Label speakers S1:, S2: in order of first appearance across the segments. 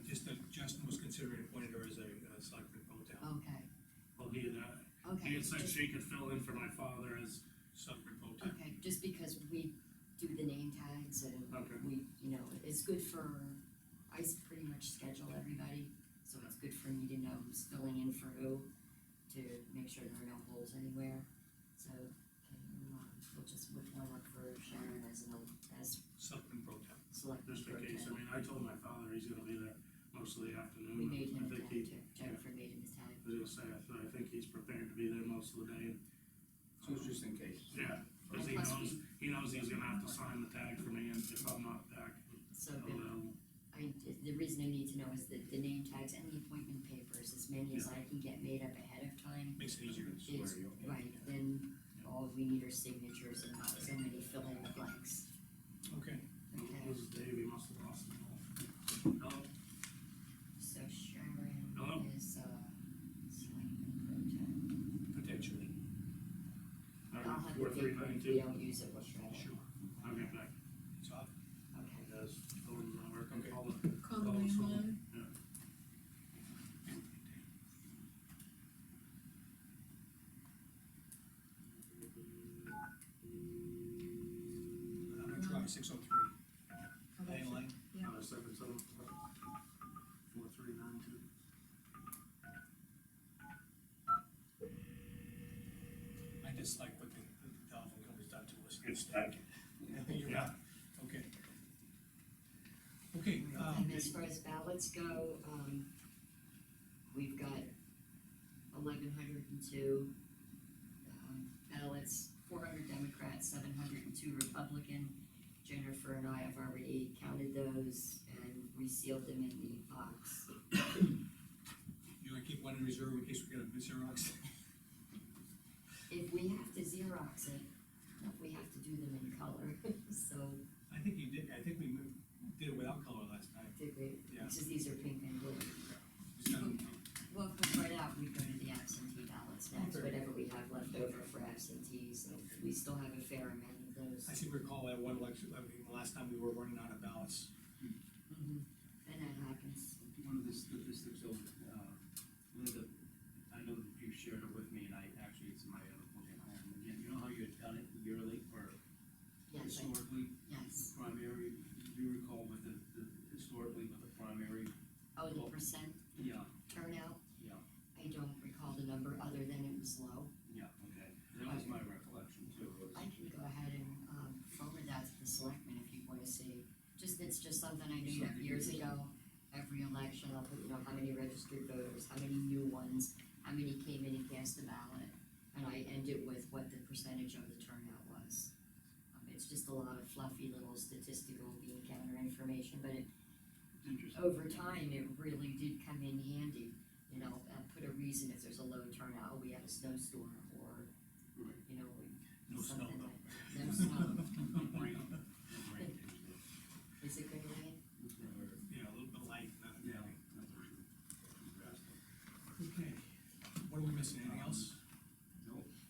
S1: uh, and such, she could fill in for my father as sub remote.
S2: Okay, just because we do the name tags and
S1: Okay.
S2: we, you know, it's good for, I s- pretty much schedule everybody, so it's good for me to know who's filling in for who, to make sure there are no holes anywhere, so, okay, um, we'll just whip one up for Sharon as an, el- as
S1: Something pro temp.
S2: select.
S1: Just in case, I mean, I told my father he's gonna be there most of the afternoon.
S2: We made him
S1: I
S2: a
S1: think
S2: tag
S1: he,
S2: too, Jennifer made him a tag.
S1: I was gonna say, I th- I think he's prepared to be there most of the day,
S3: So it's just in case.
S1: yeah, cause he
S2: And plus
S1: knows, he knows he's gonna have to sign the tag for me, and if I'm not back,
S2: So,
S1: I'll,
S2: good.
S1: um,
S2: I mean, th- the reason I need to know is that the name tags and the appointment papers, as many as I can get made up ahead of time,
S4: Makes it easier.
S3: Swear you.
S2: Right, then all we need are signatures and not so many fill in the blanks.
S4: Okay.
S2: Okay,
S1: this is Dave, he must have lost it all. Hello?
S2: so Sharon
S1: Hello?
S2: is, uh, selectman
S4: Potentially.
S2: pro tem. I'll have
S1: Four,
S2: the
S1: three,
S2: paper,
S1: nine,
S2: if we
S1: two.
S2: don't use it, we'll shred it.
S4: Sure.
S1: I'll get back,
S4: So I'll
S2: Okay,
S1: you guys, go and uh, work on
S4: Okay.
S1: all the
S5: Call the
S1: Oh, so-
S5: landline.
S4: I'm gonna try six oh three,
S5: How about-
S4: landline.
S5: Yeah.
S1: Five, seven, seven, four, three, nine, two.
S4: I dislike what the, the Dolphin Club has done to us. You're right. Okay. Okay, um,
S2: and as far as ballots go, um, we've got eleven hundred and two, um, ballots, four hundred Democrats, seven hundred and two Republican. Jennifer and I have already counted those and we sealed them in the box.
S4: you wanna keep one in reserve in case we get a Xerox?
S2: If we have to Xerox it, we have to do them in color, so,
S4: I think you did, I think we moved- did it without color last time.
S2: did we,
S4: Yeah.
S2: since these are pink and blue.
S4: It's not-
S2: Well, if we write out, we go to the absentee ballots next,
S4: Okay.
S2: whatever we have left over for absentees, and we still have a fair amount of those.
S4: I seem to recall that one election, I mean, the last time we were running out of ballots.
S2: Mhm. And that happens.
S3: One of the statistics of, uh, Linda, I know that you shared it with me, and I, actually, it's in my other book at home, again, you know how you had done it yearly, or
S2: Yes, I-
S3: historically, the
S2: yes.
S3: primary, do you recall with the, the, historically with the primary?
S2: Oh, the percent
S3: Yeah,
S2: turnout?
S3: Yeah.
S2: I don't recall the number, other than it was low.
S3: yeah, okay, that was my recollection too, was.
S2: I can go ahead and, um, forward that to the selectmen if you wanna see. Just, it's just something I knew
S3: Something
S2: years
S3: you-
S2: ago, every election, I'll put, you know, how many registered voters, how many new ones, how many came in and cast a ballot. And I end it with what the percentage of the turnout was. Um, it's just a lot of fluffy little statistical bean counter information, but it,
S3: It's interesting.
S2: over time, it really did come in handy. You know, uh, put a reason if there's a low turnout, oh, we had a snowstorm or,
S3: Right.
S2: you know, we
S4: No snow
S2: Something
S4: though.
S2: like- no snow.
S3: Right. Right.
S2: Is it going to rain?
S4: Yeah, a little bit light, nothing.
S3: Yeah.
S4: heavy. Okay, what are we missing, anything else?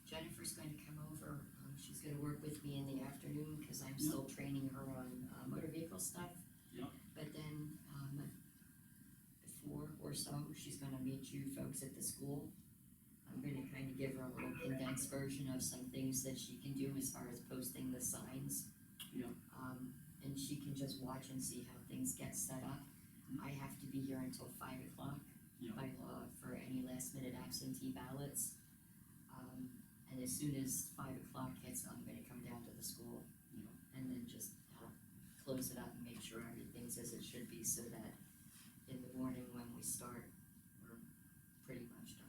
S2: Jennifer's going to come over, um, she's gonna work with me in the afternoon, cause I'm still training her on, uh, motor vehicle stuff.
S3: Yep.
S2: But then, um, at four or so, she's gonna meet you folks at the school. I'm gonna kinda give her a little condensed version of some things that she can do as far as posting the signs.
S3: Yep.
S2: Um, and she can just watch and see how things get set up. I have to be here until five o'clock
S3: Yep.
S2: by law for any last minute absentee ballots. Um, and as soon as five o'clock hits, I'm gonna come down to the school.
S3: Yeah.
S2: And then just, uh, close it up and make sure everything's as it should be so that in the morning when we start, we're pretty much done.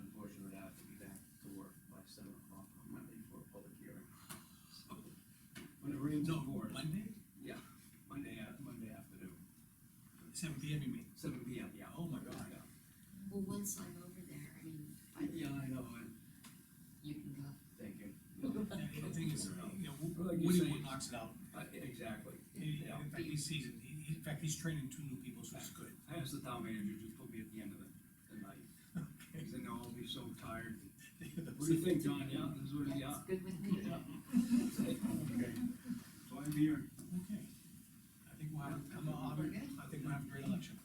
S3: Unfortunately, I have to be back to work by seven o'clock on Monday for a public hearing. So, When it rains on board,
S4: Monday,
S3: Monday, af- Monday afternoon,
S4: seven P M, you mean?
S3: seven P M, yeah.
S4: Oh my God.
S3: Yeah.
S2: Well, once I'm over there, I mean,
S3: Yeah, I know, I-
S2: you can go.
S3: thank you.
S4: Yeah, the thing is, you know, Wo-
S3: Like you
S4: Woody
S3: say-
S4: Wood knocks it out.
S3: I- Uh, Exactly.
S4: He-
S3: Yeah.
S4: In fact, he's seasoned. He- he- In fact, he's training two new people, so it's good.
S3: I asked the town manager to put me at the end of the, the night, because I know I'll be so tired. What do you think, John? Yeah, this is what, yeah.
S2: That's good with me.
S3: Yeah. So I'm here.